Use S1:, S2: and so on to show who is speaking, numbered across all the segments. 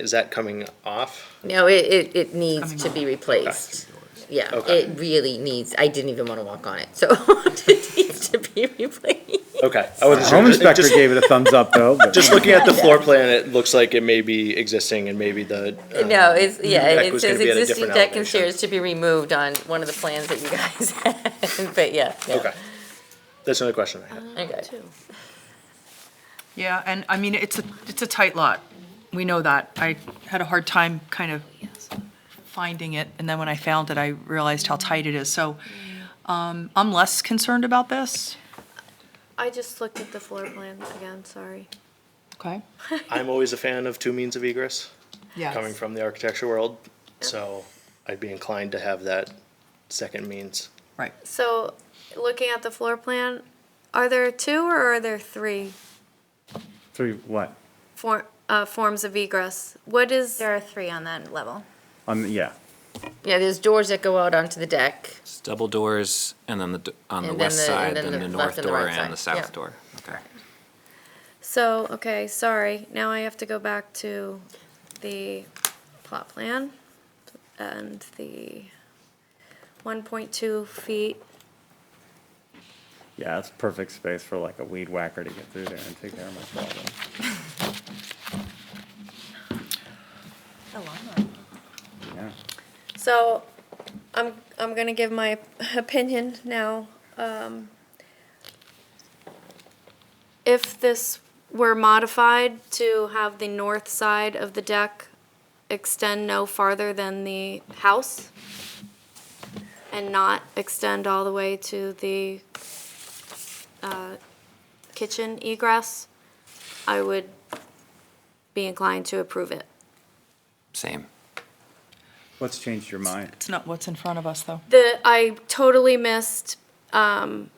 S1: Is that coming off?
S2: No, it, it, it needs
S3: Coming
S2: to be
S3: off.
S2: replaced. Yeah,
S1: Okay.
S2: it really needs, I didn't even wanna walk on it, so it needs to be replaced.
S1: Okay. I wasn't sure.
S4: Home inspector
S1: Just-
S4: gave it a thumbs up though, but.
S1: Just looking at the floor plan, it looks like it may be existing and maybe the. uh,
S2: No, it's, yeah,
S1: Deck
S2: it
S1: was gonna
S2: says
S1: be at a
S2: existing
S1: different
S2: deck and
S1: elevation.
S2: stairs to be removed on one of the plans that you guys had, but yeah. yeah.
S1: Okay. That's another question I had.
S5: Uh-huh.
S2: Okay.
S3: Yeah, and I mean, it's a, it's a tight lot. We know that. I had a hard time kind of finding it, and then when I found it, I realized how tight it is. So um, I'm less concerned about this.
S6: I just looked at the floor plan again, sorry.
S3: Okay.
S1: I'm always a fan of two means of egress,
S3: Yeah.
S1: coming from the architecture world, so I'd be inclined to have that second means.
S3: Right.
S6: So, looking at the floor plan, are there two or are there three
S4: Three, what?
S6: for, uh, forms of egress? What is? There are three on that level.
S4: On, the- yeah.
S2: Yeah, there's doors that go out onto the deck.
S7: It's double doors, and then the, d- on the
S2: And then
S7: west
S2: the- and
S7: side,
S2: then
S7: then
S2: the left
S7: the north
S2: and the
S7: door
S2: right
S7: and the
S2: side, yeah.
S7: south door. Okay.
S6: So, okay, sorry, now I have to go back to the plot plan and the one point two feet.
S4: Yeah, it's perfect space for like a weed whacker to get through there and take care of my problem. Yeah.
S6: So, I'm, I'm gonna give my opinion now. Um, If this were modified to have the north side of the deck extend no farther than the house and not extend all the way to the uh, kitchen egress, I would be inclined to approve it.
S7: Same.
S4: What's changed your mind?
S3: It's not what's in front of us, though.
S6: The, I totally missed, um,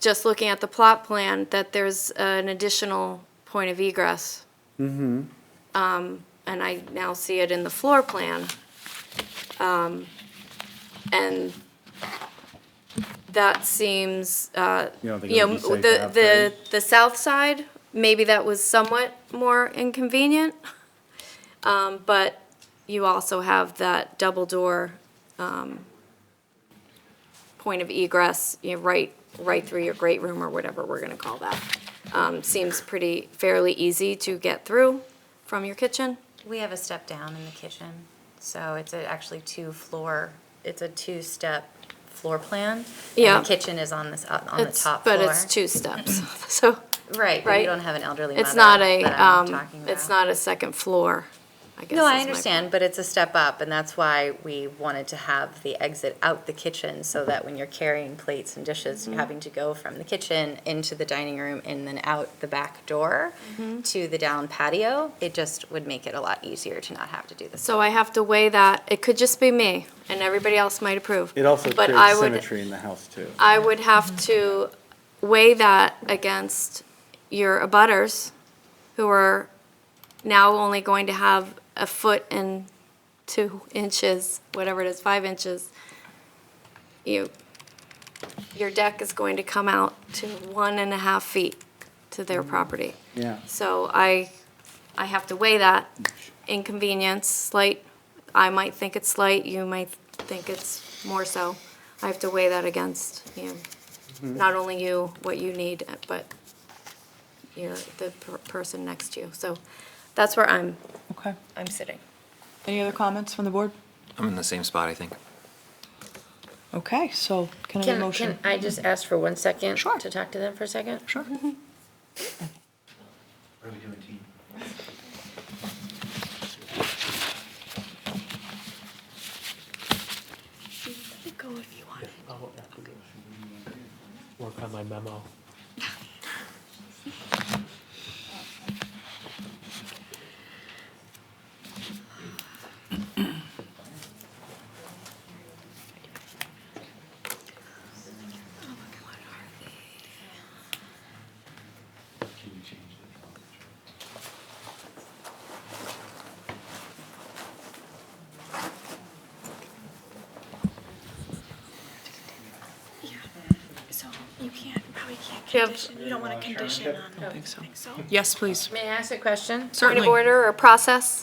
S6: just looking at the plot plan, that there's an additional point of egress. Mm-hmm. Um, and I now see it in the floor plan. Um, and that seems, uh,
S4: You don't think
S6: you
S4: it would
S6: know,
S4: be safe to
S6: the,
S4: have
S6: the,
S4: those?
S6: the south side, maybe that was somewhat more inconvenient. Um, but you also have that double door, um, point of egress, you know, right, right through your great room or whatever we're gonna call that. Um, seems pretty fairly easy to get through from your kitchen.
S5: We have a step down in the kitchen, so it's a- actually two floor, it's a two-step floor plan. and
S6: Yeah.
S5: The kitchen is on this, uh, on the
S6: It's,
S5: top floor.
S6: but it's two steps, so
S5: Right, but
S6: right?
S5: you don't have an elderly mother
S6: it's not a,
S5: that I'm
S6: um,
S5: talking
S6: it's
S5: about.
S6: not a second floor, I guess.
S5: No,
S6: is
S5: I
S6: my
S5: understand, but it's a step up, and that's why we wanted to have the exit out the kitchen, so that when you're carrying plates and dishes,
S6: Mm-hmm.
S5: you're having to go from the kitchen into the dining room and then out the back door
S6: Mm-hmm.
S5: to the down patio. It just would make it a lot easier to not have to do this.
S6: So I have to weigh that. It could just be me, and everybody else might approve.
S4: It also
S6: But I
S4: creates
S6: would,
S4: symmetry in the house too.
S6: I would have to weigh that against your abutters, who are now only going to have a foot and two inches, whatever it is, five inches. You, your deck is going to come out to one and a half feet to their property.
S4: Yeah.
S6: So I, I have to weigh that inconvenience, slight, I might think it's slight, you might think it's more so. I have to weigh that against, you know, not only you, what you need, but you're the per- person next to you. So that's where I'm,
S3: Okay.
S6: I'm sitting.
S3: Any other comments from the board?
S7: I'm in the same spot, I think.
S3: Okay, so can I have a
S2: Can,
S3: motion?
S2: can I just ask for one second?
S3: Sure.
S2: To talk to them for a second?
S3: Sure.
S6: Go if you want.
S8: I'll have to go work on my memo.
S9: So you can't, probably can't
S6: Do you have
S9: You don't want a condition on
S3: I think so. Yes, please.
S2: May I ask a question?
S6: point
S3: Certainly.
S6: of order or process?